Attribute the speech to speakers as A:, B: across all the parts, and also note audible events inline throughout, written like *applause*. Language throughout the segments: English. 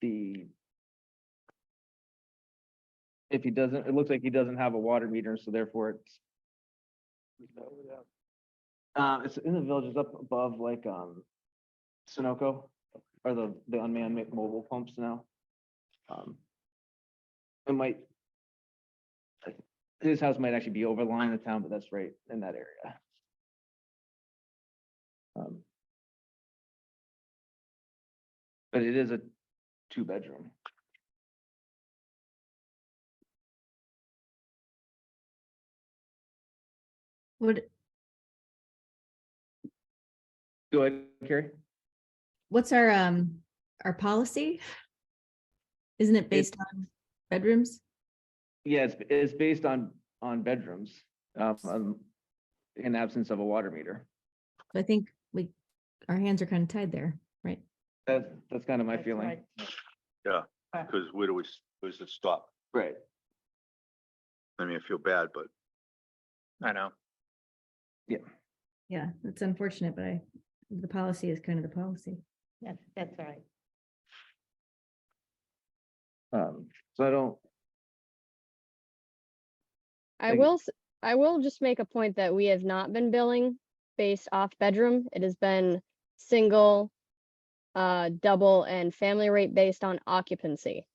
A: the if he doesn't, it looks like he doesn't have a water meter, so therefore it's uh, it's in the villages up above like, um, Sunoco, or the, the unmanned ma- mobile pumps now. Um, It might. like, His house might actually be over the line of town, but that's right in that area. Um, But it is a two-bedroom.
B: Would,
A: Go ahead, Carrie.
B: what's our, um, our policy? Isn't it based on bedrooms?
A: Yeah, it's, it's based on, on bedrooms, um, um, in absence of a water meter.
B: I think we, our hands are kind of tied there, right?
A: That's, that's kind of my
C: That's
A: feeling.
C: right.
D: Because where do we, s- where's it stop?
A: Right.
D: I mean, I feel bad, but.
E: I know.
B: Yeah, it's unfortunate, but I, the policy is kind of the policy.
C: That's, that's right.
A: Um, so I don't,
F: I
A: Like-
F: will, s- I will just make a point that we have not been billing based off bedroom. It has been single, uh, double and family rate based on occupancy.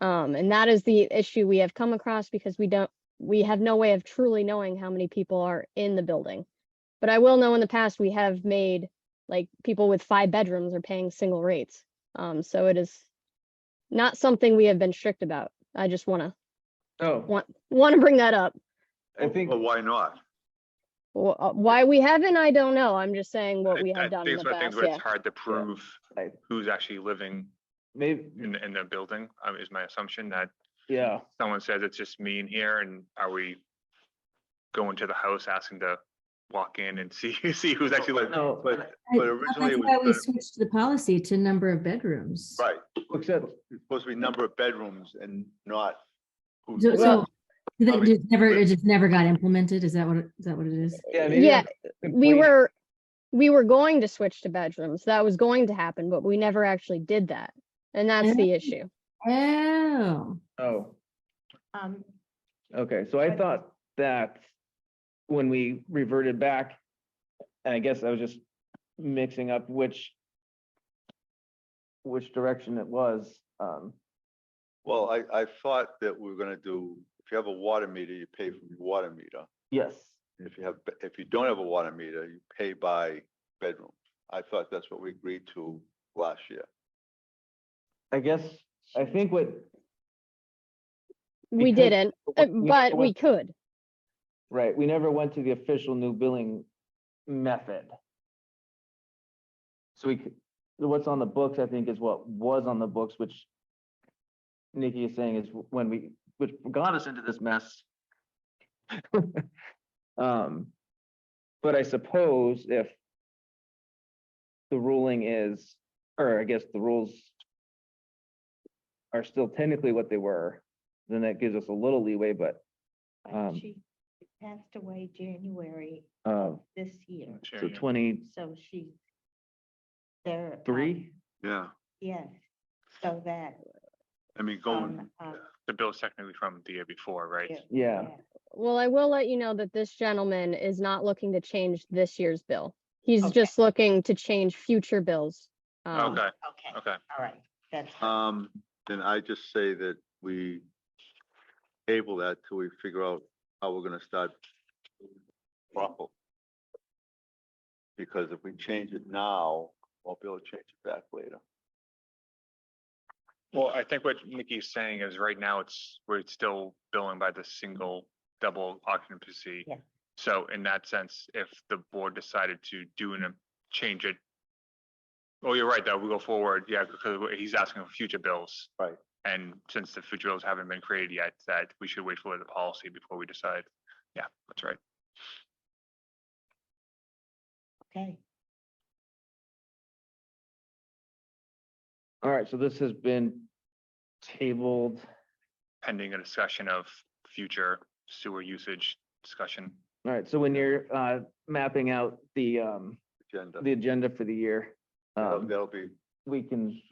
F: Um, and that is the issue we have come across because we don't, we have no way of truly knowing how many people are in the building. But I will know in the past, we have made, like, people with five bedrooms are paying single rates. Um, so it is not something we have been strict about. I just wanna, *laughs*
A: oh,
F: One- wanna bring that up.
A: I think,
D: Well, why not?
F: Wh- uh, Why we haven't, I don't know. I'm just saying what
E: I-
F: we
E: I
F: have done in
E: think
F: the
E: it's one of the things
F: past,
E: where
F: yeah.
E: It's hard to prove
A: I-
E: who's actually living
A: maybe,
E: in, the- in the building, uh, is my assumption that
A: yeah,
E: someone says it's just me in here and are we going to the house asking to walk in and *laughs* see, see who's actually living?
A: no,
D: But,
B: I-
D: but
B: That's
D: originally it
B: why we
D: was,
B: switched the policy to number of bedrooms.
D: the- right,
A: except,
D: it's supposed to be number of bedrooms and not. who-
B: So, so
A: Well,
B: that
D: probably-
B: just never, it just never got implemented. Is that what, it- is that what it is?
A: yeah. maybe
F: Yeah,
A: I'm
F: we
A: complaining.
F: were, we were going to switch to bedrooms. That was going to happen, but we never actually did that. And that's the
B: Oh.
F: issue.
B: Oh,
A: Oh,
C: Um,
A: okay, so I
C: But-
A: thought that when we reverted back, and I guess I was just mixing up which which direction it was, um,
D: Well, I, I thought that we were gonna do, if you have a water meter, you pay from your water meter.
A: yes,
D: And If you have, be- if you don't have a water meter, you pay by bedroom. I thought that's what we agreed to last year.
A: I guess, I think what.
F: We
A: because-
F: didn't, uh, but we could.
A: Right, we never went to the official new billing method. So we, could- what's on the books, I think, is what was on the books, which Nikki is saying is when we, which got us into this mess. *laughs* Um, but I suppose if the ruling is, or I guess the rules are still technically what they were, then that gives us a little leeway, but,
C: but
A: Um,
C: she passed away January
A: uh,
C: this year,
E: Sure,
A: So
E: yeah.
A: twenty-three?
C: so she there. um,
D: Yeah,
C: Yes, so that.
D: I mean, going,
C: um, uh,
E: The bill's technically from the year before, right?
C: yeah,
A: Yeah,
F: Well, I will let you know that this gentleman is not looking to change this year's bill. He's
C: Okay.
F: just looking to change future bills. um,
E: Okay,
C: Okay,
E: okay.
C: all right, that's,
D: um, then I just say that we table that till we figure out how we're gonna start proper. Because if we change it now, won't be able to change it back later.
E: Well, I think what Nikki's saying is right now it's, we're still billing by the single, double occupancy.
C: Yeah.
E: So in that sense, if the board decided to do and change it. Oh, you're right, that we go forward, yeah, because we- he's asking for future bills.
D: Right.
E: And since the future bills haven't been created yet, that we should wait for the policy before we decide. Yeah, that's right.
C: okay.
A: all right, so this has been tabled,
E: Pending a discussion of future sewer usage discussion.
A: all right, so when you're uh mapping out the um,
D: Agenda.
A: the agenda for the year.
D: That'll
A: Um,
D: that'll be
A: we can